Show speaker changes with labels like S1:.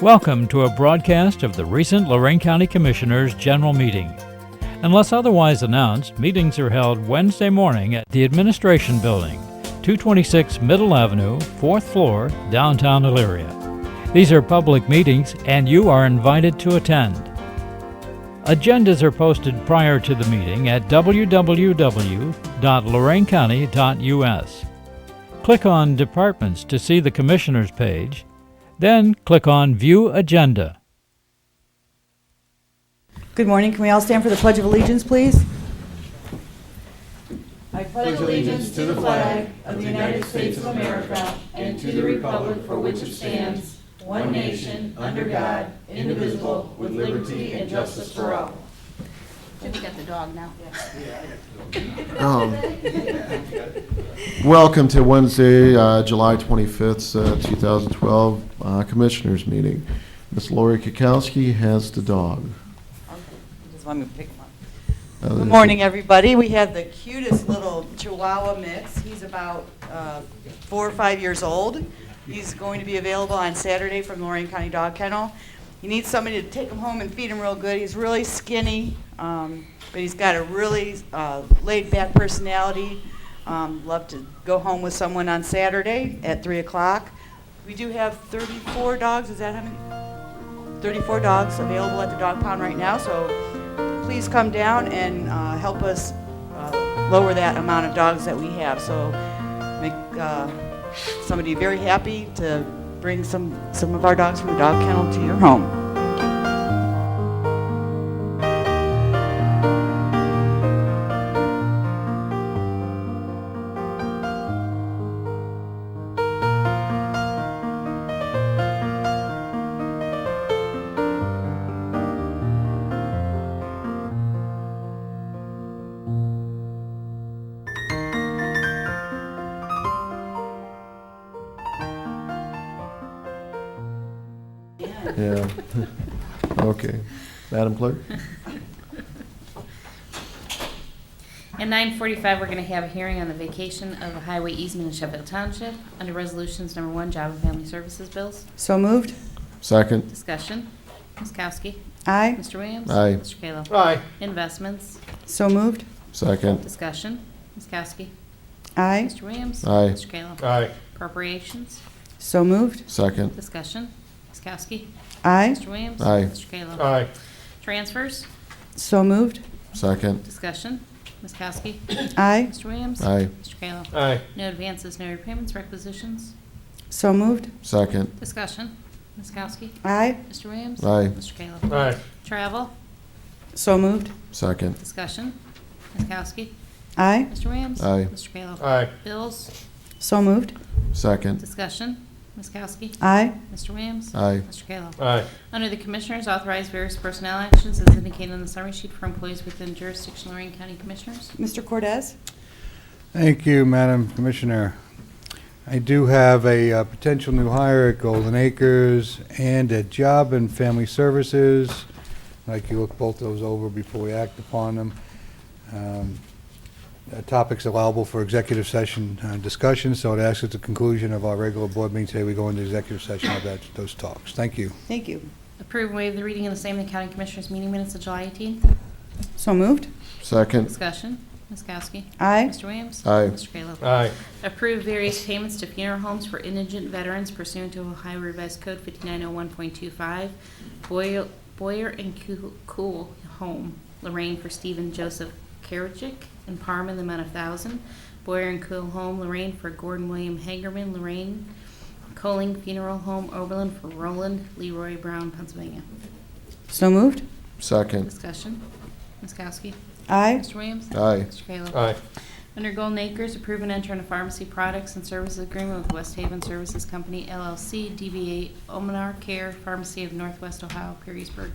S1: Welcome to a broadcast of the recent Lorraine County Commissioners' General Meeting. Unless otherwise announced, meetings are held Wednesday morning at the Administration Building, 226 Middle Avenue, 4th floor, downtown Elyria. These are public meetings and you are invited to attend. Agendas are posted prior to the meeting at www.loraincounty.us. Click on Departments to see the Commissioners page, then click on View Agenda.
S2: Good morning. Can we all stand for the Pledge of Allegiance, please?
S3: We got the dog now.
S4: Welcome to Wednesday, uh, July 25th, uh, 2012 uh, Commissioners Meeting. Ms. Lori Kukowski has the dog.
S2: Just want me to pick one.
S4: Uh,
S2: Good morning, everybody. We have the cutest little Chihuahua mix. He's about uh, four or five years old. He's going to be available on Saturday from Lorraine County Dog Kennel. You need somebody to take him home and feed him real good. He's really skinny, um, but he's got a really uh, laid-back personality. Um, Love to go home with someone on Saturday at 3 o'clock. We do have 34 dogs, is that how many? 34 dogs available at the dog pound right now, so please come down and uh, help us uh, lower that amount of dogs that we have. So make uh, somebody very happy to bring some, some of our dogs from the dog kennel to your home.
S4: Yeah. Okay. Madam Clerk?
S3: At nine forty-five, we're gonna have a hearing on the vacation of a highway easement in Sheffield Township under resolutions number one, job and family services bills.
S2: So moved?
S4: Second.
S3: Discussion. Ms. Kowski.
S2: Aye.
S3: Mr. Williams.
S4: Aye.
S3: Mr. Kayla.
S5: Aye.
S3: Investments.
S2: So moved?
S4: Second.
S3: Discussion. Ms. Kowski.
S2: Aye.
S3: Mr. Williams.
S4: Aye.
S3: Mr. Kayla.
S5: Aye.
S3: Appropriations.
S2: So moved?
S4: Second.
S3: Discussion. Ms. Kowski.
S2: Aye.
S3: Mr. Williams.
S4: Aye.
S3: Mr. Kayla.
S5: Aye.
S3: Transfers.
S2: So moved?
S4: Second.
S3: Discussion. Ms. Kowski.
S2: Aye.
S3: Mr. Williams.
S4: Aye.
S3: Mr. Kayla.
S5: Aye.
S3: No advances, no repayments, requisitions.
S2: So moved?
S4: Second.
S3: Discussion. Ms. Kowski.
S2: Aye.
S3: Mr. Williams?
S4: Aye.
S3: Mr. Caleb?
S5: Aye.
S3: Travel,
S2: So moved?
S4: Second.
S3: discussion. Ms. Kowski?
S2: Aye.
S3: Mr. Williams?
S4: Aye.
S3: Mr. Caleb?
S5: Aye.
S3: Bills,
S2: So moved?
S4: Second.
S3: discussion. Ms. Kowski?
S2: Aye.
S3: Mr. Williams?
S4: Aye.
S3: Mr. Caleb?
S5: Aye.
S3: Under the Commissioners, authorize various personnel actions as indicated on the summary sheet for employees within jurisdiction of Lorraine County Commissioners.
S2: Mr. Cordez?
S6: Thank you, Madam Commissioner. I do have a uh, potential new hire at Golden Acres and at Job and Family Services. I'd like you to look both those over before we act upon them. Um, uh, Topics allowable for executive session uh, discussion, so it asks at the conclusion of our regular board meeting today, we go into executive session of that- those talks. Thank you.
S2: Thank you.
S3: Approve and waive the reading of the same in the County Commissioners meeting minutes of July 18th.
S2: So moved?
S4: Second.
S3: Discussion. Ms. Kowski?
S2: Aye.
S3: Mr. Williams?
S4: Aye.
S3: Mr. Caleb?
S5: Aye.
S3: Approve various payments to funeral homes for indigent veterans pursuant to Ohio Revised Code 5901.25, Boyer Boyer and Coo- Cool Home, Lorraine for Stephen Joseph Karajic, and Parma in the amount of 1000 Boyer and Cool Home, Lorraine for Gordon William Hagerman, Lorraine Coling Funeral Home, Oberlin for Roland Leroy Brown, Pennsylvania.
S2: So moved?
S4: Second.
S3: Discussion. Ms. Kowski.
S2: Aye.
S3: Mr. Williams.
S4: Aye.
S3: Mr. Kayla.
S5: Aye.
S3: Under Golden Acres, approve and enter into pharmacy products and services agreement with West Haven Services Company LLC, DBA Omenar Care Pharmacy of Northwest Ohio, Perrysburg.